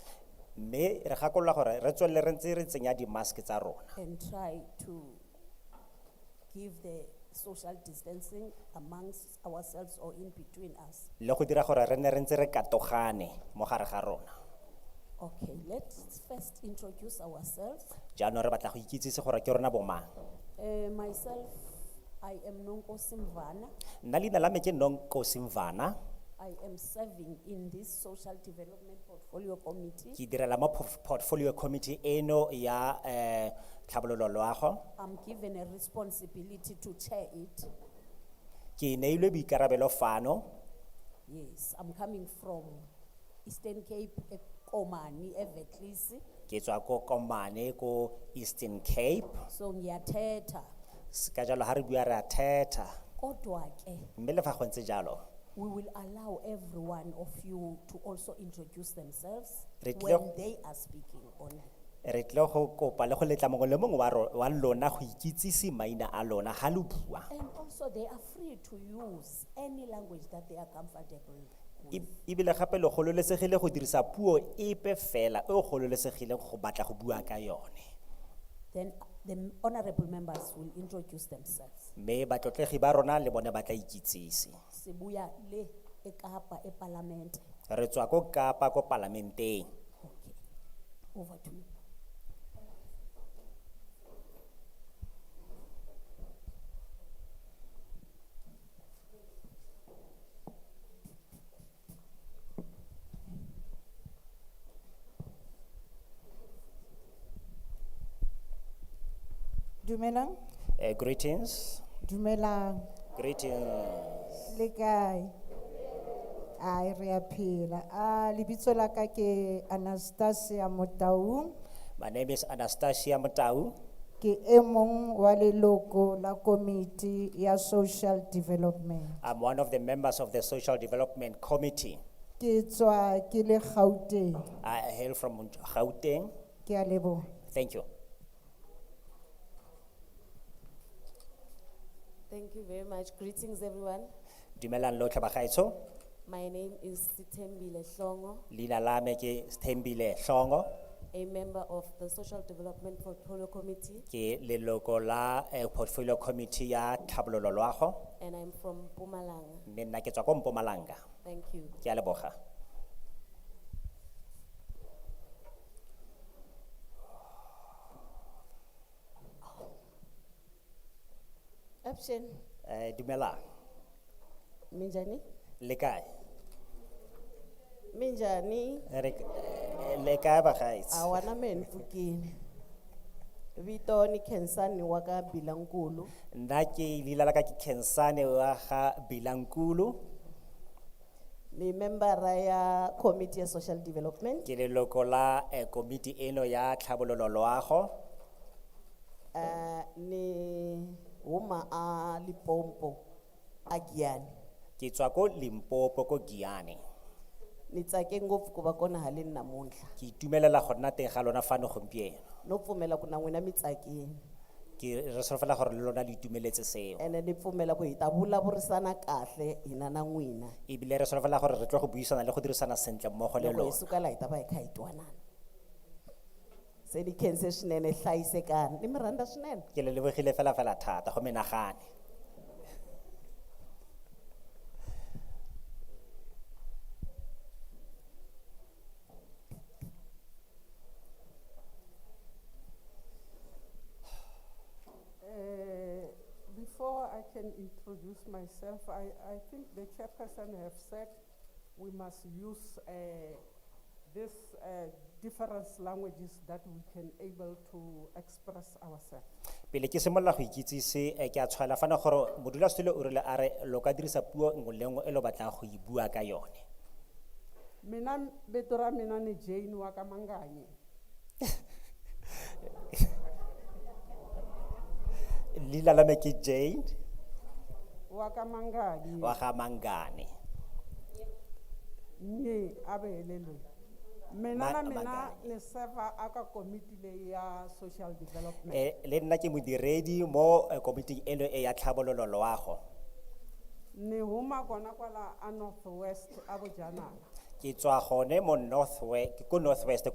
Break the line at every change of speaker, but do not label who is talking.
mme re gakolola gore re tswelele re ntse re tsenya di-mask tsa rona
and try to give the social distancing amongst ourselves or in between us.
le go dira gore re ne re ntse re katogane mo gare ga rona
Okay, let's first introduce ourselves.
jaanong re batla go ikitsise gore ke rona bomang
Uh, myself, I am Nonko Simvana.
nna leina la me ke nonkosi mvana
I am serving in this social development portfolio committee.
ke direla mo porf- portfolio committee eno ya um tlhabololo loago
I'm given a responsibility to chair it.
ke neilwe boikarabelo fano
Yes, I'm coming from Eastern Cape, Komani, Everglades.
ke tswa ko komane ko eastern cape
So ngiyathetha.
S- ka jalo ga re bua re a thetha
Kodwa ke
mme le fa go ntse jalo
we will allow every one of you to also introduce themselves
Re tlile
when
go-
they are speaking online.
re tlile go kopa le go letla mongwe le mongwe wa ro- wa lona go ikitsise maina a lona ga lo bua
And also, they are free to use any language that they are comfortable with.
E- ebile gape le gololesegile go dirisa puo epe fela e o gololesegileng go batla go bua ka yone
Then the honorable members will introduce themselves.
mme batlotlegi ba rona le bone ba tla ikitsise
Sibuya le ekapa eparlamente.
re tswa ko kapa ko palamenteng
Okay, over to you.
Dumelang,
Eh, greetings
dumelang,
greetings
le kae? Ai, re a phela. Ah, lebitso la ka ke Anastasia Motaung,
my name is anastasia motau
ke e mong wa leloko la komiti ya social development.
i'm one of the members of the social development committee
Ke tswa ke le Gauteng.
i hail from gauteng
Ke a leboha.
thank you
Thank you very much. Greetings, everyone.
dumelang lotlhe bagaetsho
My name is Sitembile Shongo,
leina la me ke thembile tlhongo
a member of the Social Development Portfolio Committee,
ke leloko la eh, portfolio committee ya tlhabololo loago
and I'm from Pumalanga.
mme nna ke tswa ko mpumalanga
Thank you.
ke a leboga
Option,
Eh, dumelang
Minjani?
le kae
Minjani,
Re- eh, le kae bagaetsho
awana men fukini. Vito ni Kensani waka Bilangulu.
nna ke leina la ka ke khensane wa ga bilankulu
Ni member ya Committee ya Social Development.
ke leloko la eh, komiti eno ya tlhabololo loago
Uh, ni Uma a Lipompo, Agiani.
ke tswa ko limpopo ko giane
Ni tsake ngofu kubakona halini namunla.
ke itumelela go nna teng ga lona fano gompieno
no pfumela ku na n'wina mi tsakini
ke re solofela gore le lona le itumeletse seo
ene ni pfumela ku hi ta vulavurisana kahle hina na n'wina
ebile re solofela gore re tlo go buisana le go dirisana sentle mmogo
loko
le
hi
lona
suka laha hi ta va hi kha hi twanana se ni khense swinene hlayisekani ni mi rhandza swinene
ke le lebogile fela fela thata go menagane
Uh, Before I can introduce myself, I, I think the chairperson have said we must use uh, this uh, different languages that we can able to express ourselves.
pele ke simolola go ikitsise eh, ke a tshwaela fana gore modulasetilo o rile a re lo ka dirisa puo nngwe le nngwe e lo batlang go e bua ka yone
Mina vito ra mina ni Jane wa ka Manganyi.
leina la me ke jane
wa ka Manganyi.
wa ga mangane
Nyi abelelwe. Mina
Ma-
na mina
Manganyi.
ni server aka committee leyi ya social development.
Eh, le nna ke modiredi mo eh, komiting eno e ya tlhabololo loago
Ni huma kona kwala a North West a Bojanala.
ke tswa gone mo northwest ko northwest